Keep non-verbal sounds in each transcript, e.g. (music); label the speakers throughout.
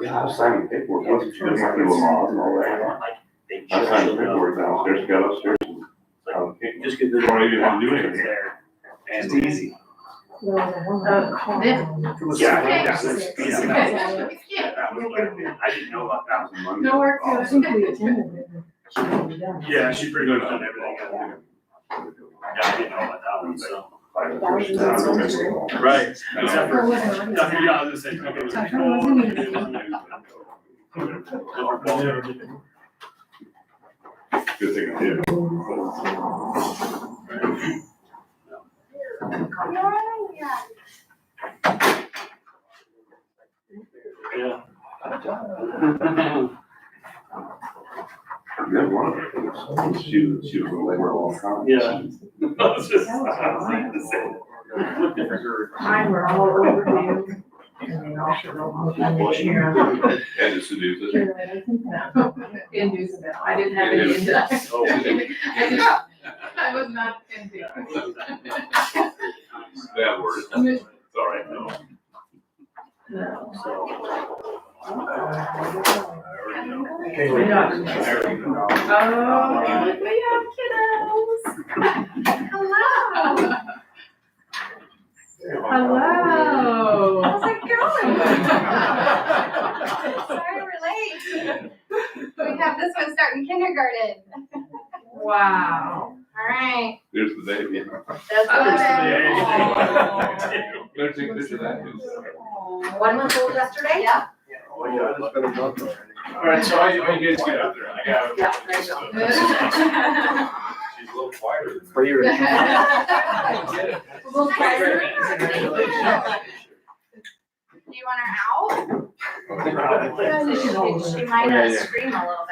Speaker 1: Yeah, I was signing paperwork,
Speaker 2: Yeah,
Speaker 1: once you get my people laws and all that.
Speaker 2: Like, they
Speaker 1: I
Speaker 2: just
Speaker 1: signed
Speaker 2: showed up.
Speaker 1: paperwork downstairs, got upstairs and um, found the paperwork.
Speaker 2: Just get the.
Speaker 1: Why you didn't do anything?
Speaker 2: It's there. And it's easy.
Speaker 3: Uh, then-
Speaker 2: From a-
Speaker 1: Yeah,
Speaker 2: Yeah,
Speaker 3: Okay.
Speaker 2: that was-
Speaker 3: It's
Speaker 2: yeah,
Speaker 3: okay.
Speaker 2: that was- that was like- I didn't know about that.
Speaker 1: Thousand Monday.
Speaker 3: No work.
Speaker 1: Oh,
Speaker 3: I
Speaker 1: I
Speaker 3: think we
Speaker 2: Yeah, she pretty much done everything. Yeah, I didn't know about that one, so.
Speaker 1: don't remember.
Speaker 2: Right.
Speaker 1: Except
Speaker 2: for- Nothing, yeah, I was gonna say, okay, it was
Speaker 3: Tucker
Speaker 2: before,
Speaker 3: wasn't
Speaker 2: and it
Speaker 3: even-
Speaker 2: wasn't new. Well,
Speaker 1: Good thing I did.
Speaker 2: Yeah. (laughs)
Speaker 1: That one of the things, she was, she was a labor all the time.
Speaker 2: Yeah. I was just, I was like, the same. Looked at her.
Speaker 3: Mine were all over you.
Speaker 1: And to seduce us.
Speaker 3: Inducible. I didn't have any (laughs) induce.
Speaker 2: (laughs) Oh,
Speaker 3: I didn't- I was not induced.
Speaker 1: Bad word. It's all right, no.
Speaker 3: No.
Speaker 2: There
Speaker 3: Oh, look, we have kiddos. Hello. Hello. How's it
Speaker 4: Sorry, we're late. We have this one starting kindergarten.
Speaker 3: (laughs) Wow.
Speaker 4: All right.
Speaker 1: There's the baby.
Speaker 4: That's
Speaker 2: There's
Speaker 4: what.
Speaker 2: the baby.
Speaker 1: There's the- there's the baby.
Speaker 4: One month old yesterday? (laughs) Yeah.
Speaker 5: Oh, yeah, it's been a month already.
Speaker 2: Alright, so I, I guess get out there, I got.
Speaker 4: Yeah, there you go.
Speaker 2: She's a little quieter. than-
Speaker 5: For
Speaker 3: (laughs)
Speaker 5: your.
Speaker 4: Well, guys, we're here.
Speaker 2: Congratulations.
Speaker 4: Do you want her out?
Speaker 3: She's older.
Speaker 4: She might uh,
Speaker 5: Yeah, yeah.
Speaker 4: scream a little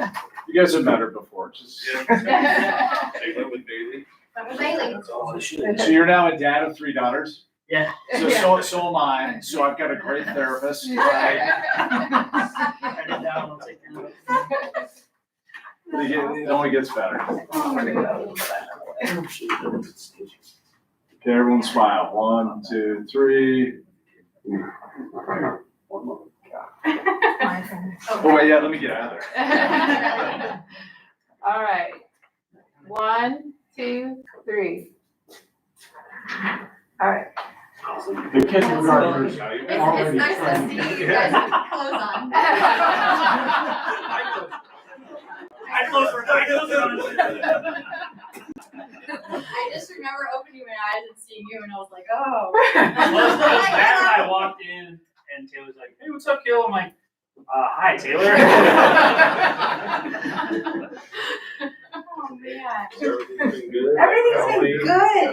Speaker 4: bit.
Speaker 5: You guys have met her before, just.
Speaker 2: Take it with Bailey.
Speaker 4: But with Bailey.
Speaker 2: That's all it should.
Speaker 5: So you're now a dad of three daughters?
Speaker 2: Yeah.
Speaker 5: So, so, so am I, so I've got a great
Speaker 3: (laughs)
Speaker 5: therapist. I- It get- it only gets better. (laughs) Okay, everyone smile. One, two, three. Oh, wait, yeah, let me get out of
Speaker 3: (laughs)
Speaker 5: there.
Speaker 3: All right. One, two, three. All right. (laughs)
Speaker 5: The
Speaker 3: kindergartners
Speaker 4: It's, it's nice to see you guys with
Speaker 5: (laughs)
Speaker 4: clothes on.
Speaker 2: I close her, I close her.
Speaker 4: I just remember opening my eyes and seeing you and I was like, oh.
Speaker 2: Well, that's bad. I walked in and Taylor's like, hey, what's up, Gil? I'm like, uh, hi, Taylor.
Speaker 4: Oh, man.
Speaker 5: Everything's good.
Speaker 4: Everything's been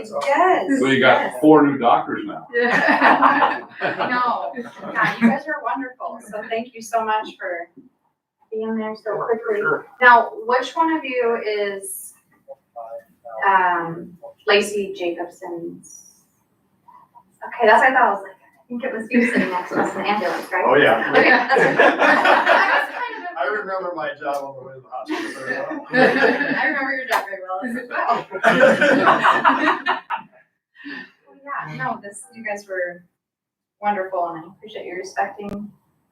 Speaker 4: good, yes.
Speaker 1: So you got four new doctors now.
Speaker 4: (laughs) No, yeah, you guys are wonderful, so thank you so much for being there so quickly. Now, which one of you is, um, Lacey Jacobson's? Okay, that's what I thought, I was like, I think it was you sitting next to us in the ambulance, right?
Speaker 5: Oh, yeah. (laughs)
Speaker 4: Okay, that's what- I was kind of-
Speaker 5: I remember my job on the way to the hospital very well.
Speaker 4: I remember your job very well as well. Well, Yeah, no, this, you guys were wonderful and I appreciate you respecting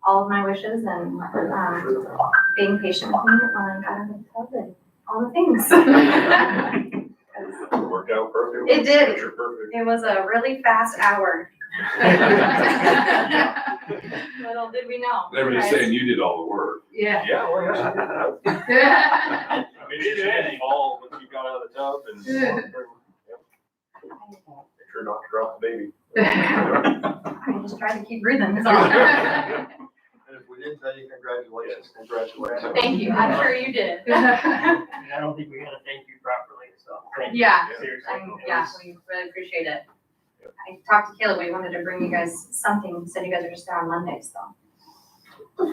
Speaker 4: all of my wishes and, um, being patient with me when I got out of bed and all the things. (laughs)
Speaker 1: Worked out perfect.
Speaker 4: It did.
Speaker 1: Picture (laughs) perfect.
Speaker 4: It was a really fast hour. Little did we know.
Speaker 1: Everybody's saying you did all the work.
Speaker 3: Yeah.
Speaker 1: Yeah. well,
Speaker 3: (laughs)
Speaker 2: I
Speaker 3: Yeah.
Speaker 2: mean, it's anything, all, when you got out of the tub and.
Speaker 5: (laughs) Sure not to drop the baby.
Speaker 4: I just tried to keep breathing, that's all.
Speaker 3: Yeah.
Speaker 5: And if we didn't tell you, congratulations, (laughs) congratulations.
Speaker 4: Thank you, I'm sure you did.
Speaker 6: I mean, I don't think we gotta thank you properly, so. thank you.
Speaker 4: Yeah,
Speaker 6: Seriously.
Speaker 4: I'm, yeah,
Speaker 6: It was-
Speaker 4: we really appreciate it. I talked to Caleb, we wanted to bring you guys something, said you guys are just there on Mondays, so.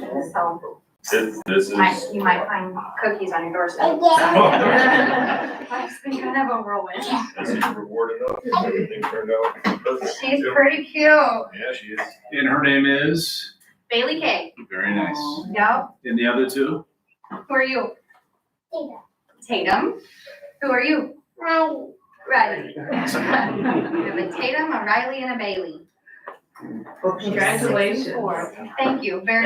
Speaker 4: So,
Speaker 2: This, this
Speaker 4: might, you might find cookies on your doorstep.
Speaker 3: Oh,
Speaker 4: (laughs) Life's been kind of a whirlwind.
Speaker 2: this is reward enough, everything turned out perfect.
Speaker 4: She's pretty cute.
Speaker 2: Yeah, she is.
Speaker 5: And her name is?
Speaker 4: Bailey Kay,
Speaker 5: Very nice.
Speaker 4: yep,
Speaker 5: And the other two?
Speaker 4: who are you? Tatum. Tatum, who are you? Riley.
Speaker 6: (laughs)
Speaker 4: Riley. We have a Tatum, a Riley, and a Bailey.
Speaker 3: Congratulations.
Speaker 4: Thank you very